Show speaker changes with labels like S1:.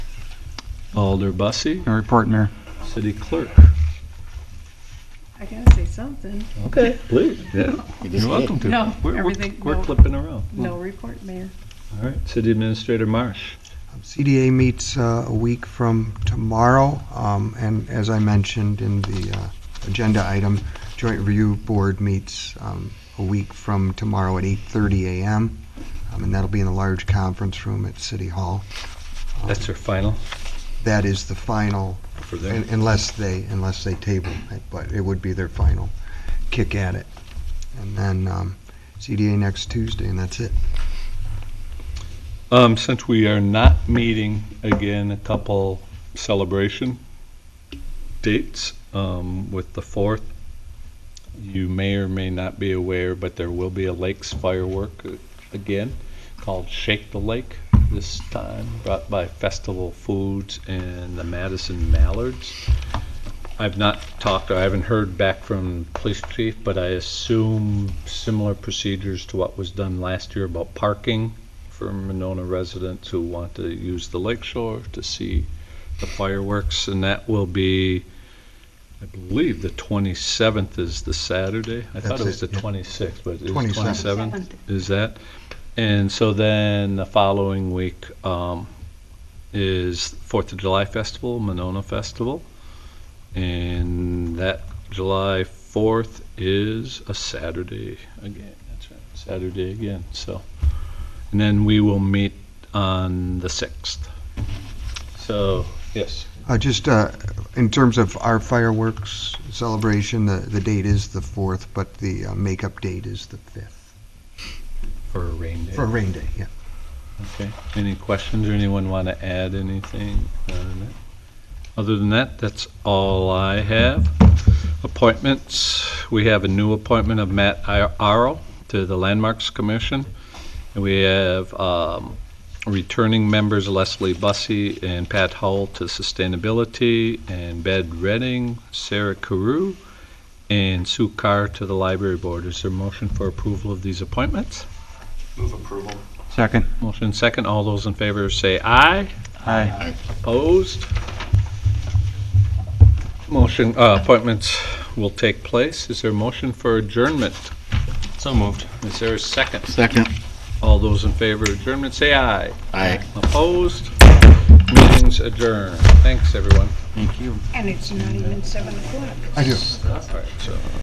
S1: Alder Bussey,
S2: No report, Mayor.
S1: City Clerk.
S3: I gotta say something.
S1: Okay. Please, yeah.
S4: You just
S1: You're
S4: did.
S1: welcome to.
S3: No,
S1: We're- we're-
S3: everything-
S1: We're
S3: no.
S1: clipping around.
S3: No report, Mayor.
S1: All right, City Administrator Marsh.
S5: CDA meets uh, a week from tomorrow, um, and as I mentioned in the uh, agenda item, Joint Review Board meets um, a week from tomorrow at 8:30 a.m., um, and that'll be in the large conference room at City Hall. Um,
S1: That's our final
S5: That is the final,
S1: for there.
S5: un- unless they, unless they table it, but it would be their final kick at it. And then um, CDA next Tuesday, and that's it.
S1: Um, since we are not meeting again, a couple celebration dates, um, with the fourth. You may or may not be aware, but there will be a Lakes firework uh, again called Shake the Lake this time, brought by Festival Foods and the Madison Mallards. I've not talked, or I haven't heard back from police chief, but I assume similar procedures to what was done last year about parking for Monona residents who want to use the lake shore to see the fireworks, and that will be, I believe, the 27th is the Saturday. I thought
S5: That's
S1: it was the
S5: it, yeah.
S1: 26th, but it is
S5: 27th.
S1: 27th, is that? And so then the following week um, is Fourth of July Festival, Monona Festival, and that July 4th is a Saturday again. That's right, Saturday again, so. And then we will meet on the 6th. So, yes.
S5: Uh, Just uh, in terms of our fireworks celebration, the the date is the 4th, but the uh, makeup date is the 5th.
S1: For a rain day.
S5: For rain day, yeah.
S1: Okay. Any questions or anyone want to add anything on that? Other than that, that's all I have. Appointments, we have a new appointment of Matt Aro to the Landmarks Commission. And we have um, returning members Leslie Bussey and Pat Hull to Sustainability, and Bed Redding, Sarah Carew, and Sue Carr to the Library Board. Is there a motion for approval of these appointments?
S2: Second.
S1: Motion second, all those in favor say aye.
S2: Aye.
S1: Opposed? Motion, uh, appointments will take place. Is there a motion for adjournment?
S2: So moved.
S1: Is there a second?
S4: Second.
S1: All those in favor of adjournment say aye.
S4: Aye.
S1: Opposed? Meetings adjourned. Thanks, everyone.
S2: Thank you.
S3: And it's not even seven o'clock.
S5: I do.
S1: All right, so.